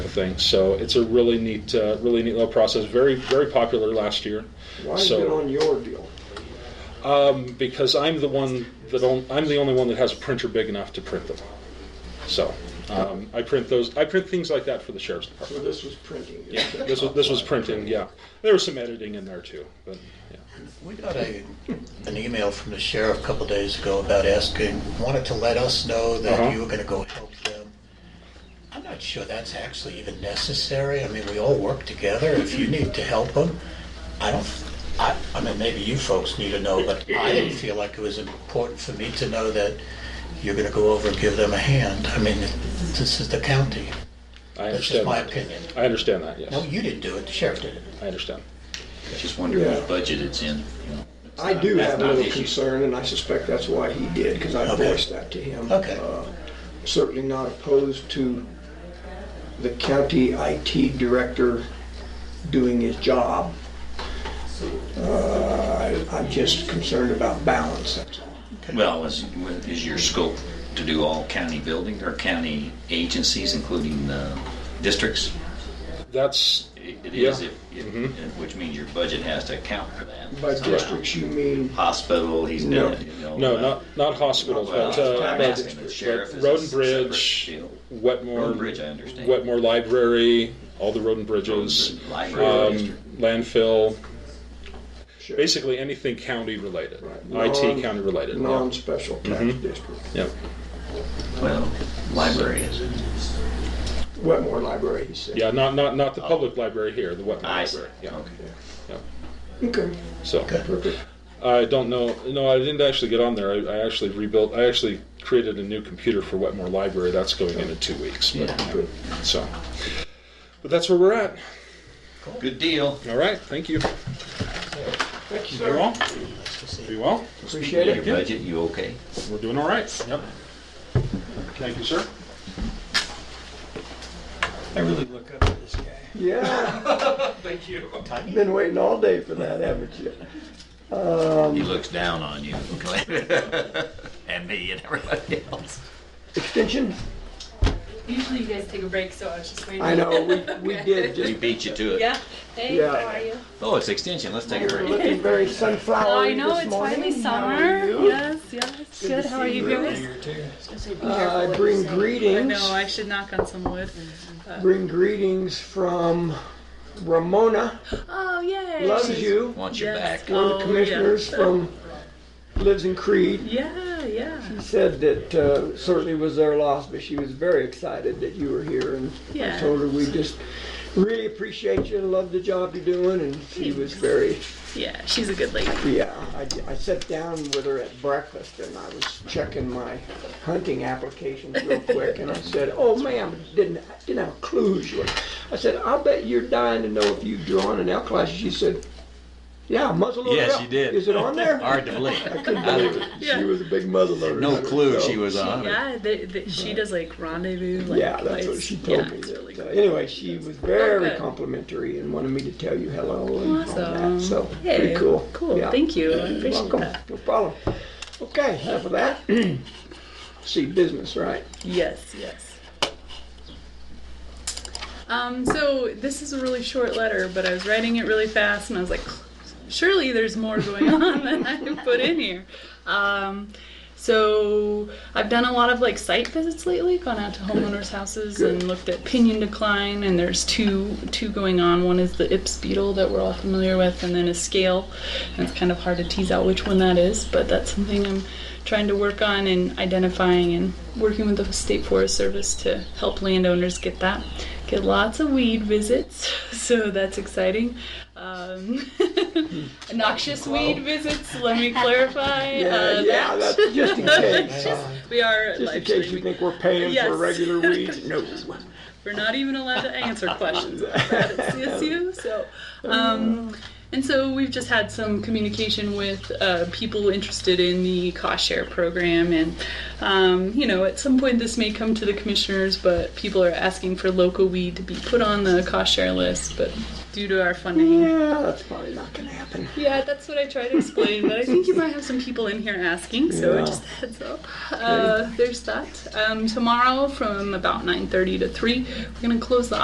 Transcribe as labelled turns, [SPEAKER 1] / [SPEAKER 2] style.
[SPEAKER 1] things. So it's a really neat, uh, really neat little process. Very, very popular last year.
[SPEAKER 2] Why is
[SPEAKER 1] So-
[SPEAKER 2] it on your deal?
[SPEAKER 1] Um, because I'm the one that on, I'm the only one that has a printer big enough to print them. So um, I print those. I print things like that for the sheriff's
[SPEAKER 2] So
[SPEAKER 1] department.
[SPEAKER 2] this was printing.
[SPEAKER 1] Yeah, this was this was printing. Yeah, there was some editing in there too, but yeah.
[SPEAKER 3] We got a, an email from the sheriff a couple days ago about asking, wanted to let us know
[SPEAKER 1] Uh-huh.
[SPEAKER 3] that you were gonna go help them. I'm not sure that's actually even necessary. I mean, we all work together. If you need to help them, I don't, I, I mean, maybe you folks need to know, but I didn't feel like it was important for me to know that you're gonna go over and give them a hand. I mean, this is the county.
[SPEAKER 1] I
[SPEAKER 3] That's
[SPEAKER 1] understand.
[SPEAKER 3] just my
[SPEAKER 1] that.
[SPEAKER 3] opinion.
[SPEAKER 1] I understand that. Yes,
[SPEAKER 3] No, you didn't do it. The sheriff did it.
[SPEAKER 1] I understand.
[SPEAKER 4] Just wonder
[SPEAKER 2] Yeah.
[SPEAKER 4] what budget it's in. you know. It's
[SPEAKER 2] I
[SPEAKER 4] not-
[SPEAKER 2] do
[SPEAKER 4] that's
[SPEAKER 2] have a
[SPEAKER 4] not the
[SPEAKER 2] little
[SPEAKER 4] issue.
[SPEAKER 2] concern, and I suspect that's why he did, because I
[SPEAKER 3] Okay.
[SPEAKER 2] voiced that to him.
[SPEAKER 3] Okay.
[SPEAKER 2] Uh, Certainly not opposed to the county IT director doing his job. Uh, I- I'm just concerned about balance, that's all.
[SPEAKER 4] Well, is, is your scope to do all county building or county agencies, including uh, districts?
[SPEAKER 1] That's
[SPEAKER 4] It it
[SPEAKER 1] Yeah. Mm-hmm.
[SPEAKER 4] is, if- if- which means your budget has to account for that.
[SPEAKER 2] By
[SPEAKER 4] somehow.
[SPEAKER 2] districts, you mean,
[SPEAKER 4] Hospital, he's
[SPEAKER 2] No.
[SPEAKER 4] done it, you know.
[SPEAKER 1] no,
[SPEAKER 4] uh,
[SPEAKER 1] not not hospitals,
[SPEAKER 4] well,
[SPEAKER 1] but, uh,
[SPEAKER 4] I'm
[SPEAKER 1] but,
[SPEAKER 4] asking the sheriff is
[SPEAKER 1] but
[SPEAKER 4] a
[SPEAKER 1] road and
[SPEAKER 4] separate
[SPEAKER 1] bridge,
[SPEAKER 4] field.
[SPEAKER 1] Wetmore,
[SPEAKER 4] Road and Bridge, I understand.
[SPEAKER 1] Wetmore Library, all the road and bridges,
[SPEAKER 4] Road and Bridge, Library
[SPEAKER 1] um,
[SPEAKER 4] District.
[SPEAKER 1] landfill,
[SPEAKER 2] sure,
[SPEAKER 1] basically anything county related,
[SPEAKER 2] Right.
[SPEAKER 1] IT
[SPEAKER 2] Non-
[SPEAKER 1] county related. Yeah.
[SPEAKER 2] non-special tax
[SPEAKER 1] Mhm.
[SPEAKER 2] district,
[SPEAKER 1] Yeah.
[SPEAKER 4] Well, library is.
[SPEAKER 2] Wetmore Library, he said.
[SPEAKER 1] Yeah, not, not, not the public library here, the Wetmore
[SPEAKER 4] Oh. I see,
[SPEAKER 1] Library. Yeah,
[SPEAKER 4] okay.
[SPEAKER 2] Okay,
[SPEAKER 1] so,
[SPEAKER 2] perfect.
[SPEAKER 1] I don't know, no, I didn't actually get on there. I, I actually rebuilt, I actually created a new computer for Wetmore Library. That's going in in two weeks, but,
[SPEAKER 2] Good.
[SPEAKER 1] so. But that's where we're at.
[SPEAKER 4] Good deal.
[SPEAKER 1] All right, thank you.
[SPEAKER 2] Thank you,
[SPEAKER 1] Very
[SPEAKER 2] sir.
[SPEAKER 1] well,
[SPEAKER 3] Nice to see you.
[SPEAKER 1] very well.
[SPEAKER 2] Appreciate
[SPEAKER 4] Your
[SPEAKER 2] it.
[SPEAKER 4] budget, you okay?
[SPEAKER 1] We're doing all right. Yep. Thank you, sir.
[SPEAKER 2] Yeah,
[SPEAKER 3] Tiny.
[SPEAKER 2] been waiting all day for that, haven't you?
[SPEAKER 4] He looks down on you. And me and everybody else.
[SPEAKER 2] Extension?
[SPEAKER 5] Usually you guys take a break, so I was just waiting.
[SPEAKER 2] I know, we, we did
[SPEAKER 4] We
[SPEAKER 2] just,
[SPEAKER 4] beat you to it.
[SPEAKER 5] Yeah. Hey,
[SPEAKER 2] Yeah.
[SPEAKER 5] how are you? Oh,
[SPEAKER 4] Oh, it's extension, let's take a
[SPEAKER 2] we're
[SPEAKER 4] break.
[SPEAKER 2] looking very sunflowery
[SPEAKER 5] I know
[SPEAKER 2] this
[SPEAKER 5] it's
[SPEAKER 2] morning.
[SPEAKER 5] finally
[SPEAKER 2] How are
[SPEAKER 5] summer.
[SPEAKER 2] you?
[SPEAKER 5] Yes, yes. Good. How are you guys?
[SPEAKER 2] Uh, I bring
[SPEAKER 5] I
[SPEAKER 2] greetings,
[SPEAKER 5] know I should knock on some wood.
[SPEAKER 2] bring greetings from Ramona,
[SPEAKER 5] Oh yay!
[SPEAKER 2] loves you,
[SPEAKER 4] Want you
[SPEAKER 5] Yes.
[SPEAKER 4] back.
[SPEAKER 2] one of
[SPEAKER 5] Oh,
[SPEAKER 2] the
[SPEAKER 5] yeah.
[SPEAKER 2] commissioners from, lives in Creed.
[SPEAKER 5] Yeah, yeah,
[SPEAKER 2] Said that uh, certainly was their loss, but she was very excited that you were here and I
[SPEAKER 5] Yeah.
[SPEAKER 2] told her we just really appreciate you and love the job you're doing and she was very
[SPEAKER 5] yeah. She's a good lady.
[SPEAKER 2] Yeah, I, I sat down with her at breakfast and I was checking my hunting applications real quick and I said, oh ma'am, didn't, I didn't have a clue she was. I said, I'll bet you're dying to know if you've drawn an elk license. She said, yeah, muzzleloader.
[SPEAKER 4] Yes,
[SPEAKER 2] elk.
[SPEAKER 4] she did.
[SPEAKER 2] Is it on there?
[SPEAKER 4] Hard to believe.
[SPEAKER 2] Couldn't believe it. She
[SPEAKER 5] Yeah.
[SPEAKER 2] was a big muzzleloader.
[SPEAKER 4] No
[SPEAKER 2] hunter,
[SPEAKER 4] clue
[SPEAKER 2] so-
[SPEAKER 4] she was
[SPEAKER 5] She,
[SPEAKER 4] on.
[SPEAKER 5] yeah, they, they, she does like rendezvous. Like,
[SPEAKER 2] Yeah, that's what
[SPEAKER 5] lights.
[SPEAKER 2] she told
[SPEAKER 5] yeah,
[SPEAKER 2] me.
[SPEAKER 5] It's really
[SPEAKER 2] So
[SPEAKER 5] cool.
[SPEAKER 2] Anyway, she was very
[SPEAKER 5] good.
[SPEAKER 2] complimentary and wanted me to tell you hello and all
[SPEAKER 5] Awesome.
[SPEAKER 2] that, so
[SPEAKER 5] Hey,
[SPEAKER 2] pretty cool.
[SPEAKER 5] Cool.
[SPEAKER 2] Yeah.
[SPEAKER 5] Thank you. I
[SPEAKER 2] You're
[SPEAKER 5] appreciate
[SPEAKER 2] welcome.
[SPEAKER 5] that.
[SPEAKER 2] No problem. Okay, enough of that. See business, right?
[SPEAKER 5] Yes, yes. Um, so this is a really short letter, but I was writing it really fast, and I was like, surely there's more going on than I can put in here. Um, so I've done a lot of like site visits lately, gone out to homeowners' houses and looked at pinion decline, and there's two two going on. One is the Ips beetle that we're all familiar with, and then a scale. And it's kind of hard to tease out which one that is, but that's something I'm trying to work on and identifying and working with the State Forest Service to help landowners get that. Get lots of weed visits, so that's exciting. Um, noxious weed visits, let me clarify.
[SPEAKER 2] Hmm. Yeah,
[SPEAKER 5] Uh,
[SPEAKER 2] yeah, that's just in case.
[SPEAKER 5] we are
[SPEAKER 2] Just in
[SPEAKER 5] live
[SPEAKER 2] case you
[SPEAKER 5] streaming.
[SPEAKER 2] think we're paying
[SPEAKER 5] Yes.
[SPEAKER 2] for regular weeds, no.
[SPEAKER 5] We're not even allowed to answer questions about it at CSU. So, um, and so we've just had some communication with uh, people interested in the cost share program, and um, you know, at some point this may come to the commissioners, but people are asking for local weed to be put on the cost share list, but due to our funding.
[SPEAKER 2] Yeah, that's probably not gonna happen.
[SPEAKER 5] Yeah, that's what I try to explain, but I think you might have some people in here asking, so
[SPEAKER 2] Yeah.
[SPEAKER 5] just a heads up. Uh, there's that. Um, tomorrow from about 9.30 to 3, we're going to close the